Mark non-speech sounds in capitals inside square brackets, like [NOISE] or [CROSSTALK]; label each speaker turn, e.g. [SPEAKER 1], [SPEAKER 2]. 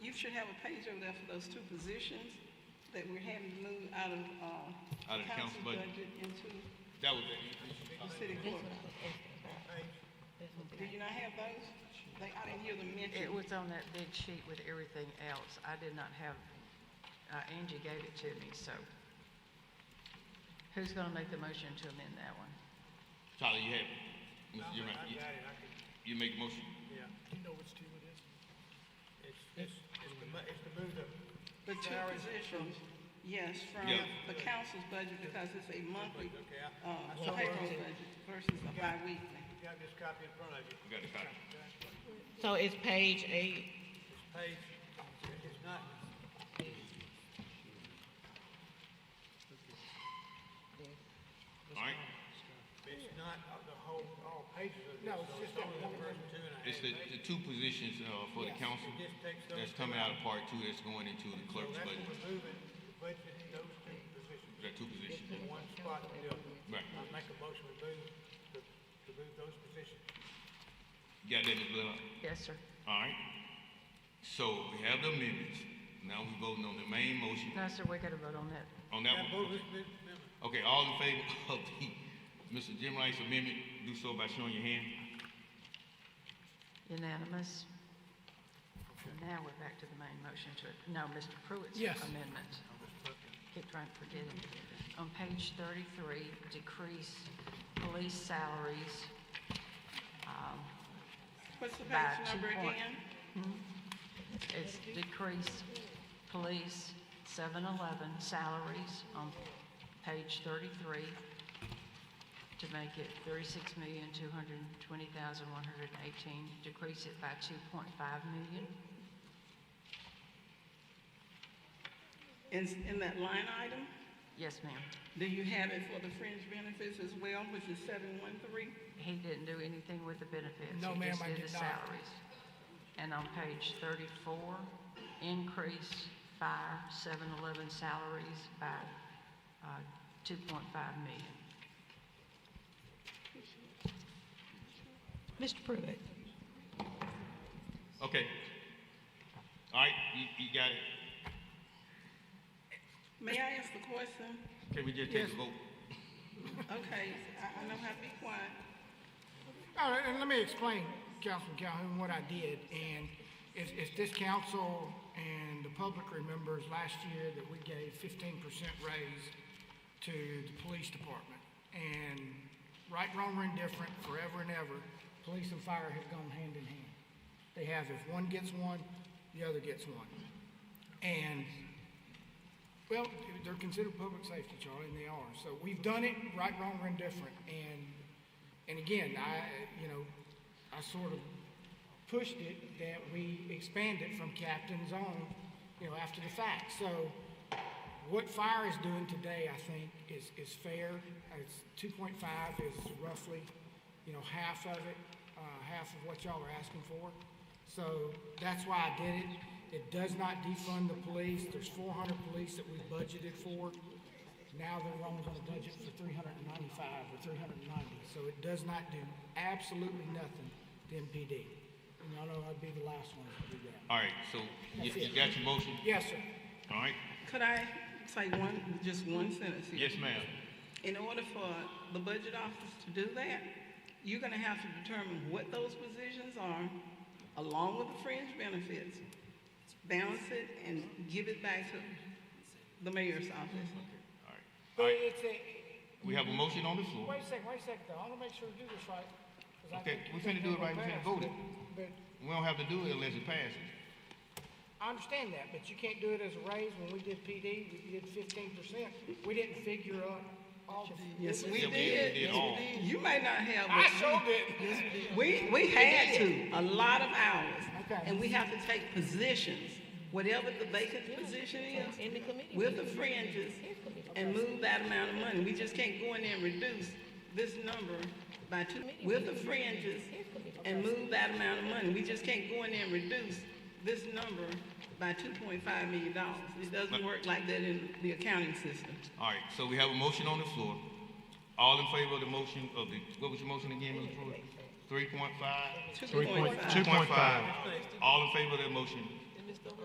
[SPEAKER 1] should have a page over there for those two positions that we're having moved out of, um.
[SPEAKER 2] Out of the council budget.
[SPEAKER 1] Into
[SPEAKER 2] That was it.
[SPEAKER 1] the city court. Do you not have those? Like, I didn't hear them mentioned.
[SPEAKER 3] It was on that big sheet with everything else. I did not have, uh, Angie gave it to me, so. Who's gonna make the motion to amend that one?
[SPEAKER 2] Tyler, you have it. Mr. You're right. You- You make a motion.
[SPEAKER 4] Yeah. You know which team it is? It's, it's, it's the, mo- it's the move to.
[SPEAKER 1] The two positions, yes, from
[SPEAKER 2] Yeah.
[SPEAKER 1] the council's budget because it's a monthly,
[SPEAKER 4] Okay, I-
[SPEAKER 1] uh, payroll budget versus a bi-weekly.
[SPEAKER 4] You got this copy in front of you.
[SPEAKER 2] We got it, Tyler.
[SPEAKER 5] So it's page eight.
[SPEAKER 4] It's page, it's not,
[SPEAKER 2] All right?
[SPEAKER 4] it's not of the whole, all pages of this. No, it's just only the first two and a
[SPEAKER 2] It's
[SPEAKER 4] half.
[SPEAKER 2] the, the two positions, uh, for the council
[SPEAKER 4] Just takes those.
[SPEAKER 2] that's coming out of part two that's going into the
[SPEAKER 4] So
[SPEAKER 2] clerk's
[SPEAKER 4] that's
[SPEAKER 2] budget.
[SPEAKER 4] what we're moving, budget, those two positions,
[SPEAKER 2] We got two positions.
[SPEAKER 4] in one spot to do it.
[SPEAKER 2] Right.
[SPEAKER 4] I make a motion to move, to, to move those positions.
[SPEAKER 2] You got that, Ms. Blaylock?
[SPEAKER 3] Yes, sir.
[SPEAKER 2] All right? So we have the amendments. Now we voting on the main motion.
[SPEAKER 3] No, sir, we gotta vote on that.
[SPEAKER 2] On that
[SPEAKER 4] Now, vote
[SPEAKER 2] one?
[SPEAKER 4] this amendment.
[SPEAKER 2] Okay, all in favor [LAUGHS] of the, Mr. Jim Rice amendment, do so by showing your hand.
[SPEAKER 3] Unanimous. Now we're back to the main motion to, no, Mr. Pruitt's amendment. Keep trying to forget it. On page 33, decrease police salaries.
[SPEAKER 1] What's the
[SPEAKER 3] By
[SPEAKER 1] page
[SPEAKER 3] two
[SPEAKER 1] number
[SPEAKER 3] point-
[SPEAKER 1] again?
[SPEAKER 3] It's decrease police 711 salaries on page 33 to make it 36,220,118, decrease it by 2.5 million.
[SPEAKER 1] In, in that line item,
[SPEAKER 3] Yes, ma'am.
[SPEAKER 1] do you have it for the fringe benefits as well, which is seven one three?
[SPEAKER 3] He didn't do anything with the benefits.
[SPEAKER 6] No, ma'am, I
[SPEAKER 3] He just did the
[SPEAKER 6] did not.
[SPEAKER 3] salaries. And on page 34, increase fire 711 salaries by uh, 2.5 million.
[SPEAKER 5] Mr. Pruitt.
[SPEAKER 2] Okay. All right, you, you got it.
[SPEAKER 1] May I ask the question?
[SPEAKER 2] Can we just take a vote?
[SPEAKER 1] Okay, I, I know how to be quiet.
[SPEAKER 6] All right, and let me explain, Councilman Calhoun, what I did, and it's, it's this council and the public remembers last year that we gave fifteen percent raise to the police department. And right, wrong, or indifferent, forever and ever, police and fire have gone hand in hand. They have, if one gets one, the other gets one. And well, they're considered public safety, Charlie, and they are. So we've done it, right, wrong, or indifferent. And, and again, I, you know, I sort of pushed it that we expand it from captain's on, you know, after the fact. So what fire is doing today, I think, is, is fair. It's two point five is roughly, you know, half of it, uh, half of what y'all are asking for. So that's why I did it. It does not defund the police. There's four hundred police that we budgeted for. Now they're only gonna budget for three hundred and ninety-five or three hundred and ninety. So it does not do absolutely nothing to MPD. And y'all know I'd be the last one to do that.
[SPEAKER 2] All right, so you, you got your motion?
[SPEAKER 6] Yes, sir.
[SPEAKER 2] All right?
[SPEAKER 1] Could I say one, just one sentence here?
[SPEAKER 2] Yes, ma'am.
[SPEAKER 1] In order for the budget office to do that, you're gonna have to determine what those positions are, along with the fringe benefits, balance it, and give it back to the mayor's office.
[SPEAKER 2] All right.
[SPEAKER 6] But it's a,
[SPEAKER 2] We have a motion on the floor.
[SPEAKER 6] Wait a second, wait a second, though. I wanna make sure we do this right. 'cause I
[SPEAKER 2] Okay,
[SPEAKER 6] think-
[SPEAKER 2] we finna do it right, we finna vote it.
[SPEAKER 6] But,
[SPEAKER 2] We don't have to do it unless it passes.
[SPEAKER 6] I understand that, but you can't do it as a raise. When we did PD, we did fifteen percent. We didn't figure up all the.
[SPEAKER 1] Yes, we
[SPEAKER 2] Yeah,
[SPEAKER 1] did.
[SPEAKER 2] we did all.
[SPEAKER 1] You may not have.
[SPEAKER 6] I
[SPEAKER 1] but
[SPEAKER 6] showed it.
[SPEAKER 1] We, we had to, a lot of hours.
[SPEAKER 6] Okay.
[SPEAKER 1] And we have to take positions, whatever the vacant position is.
[SPEAKER 5] In the committee
[SPEAKER 1] With the fringes and move that amount of money. We just can't go in there and reduce this number by two. With the fringes and move that amount of money. We just can't go in there and reduce this number by two point five million dollars. It doesn't work like that in the accounting system.
[SPEAKER 2] All right, so we have a motion on the floor. All in favor of the motion of the, what was your motion again, Mr. Pruitt? Three point five?
[SPEAKER 1] Two point five.
[SPEAKER 2] Two point five. All in favor of that motion,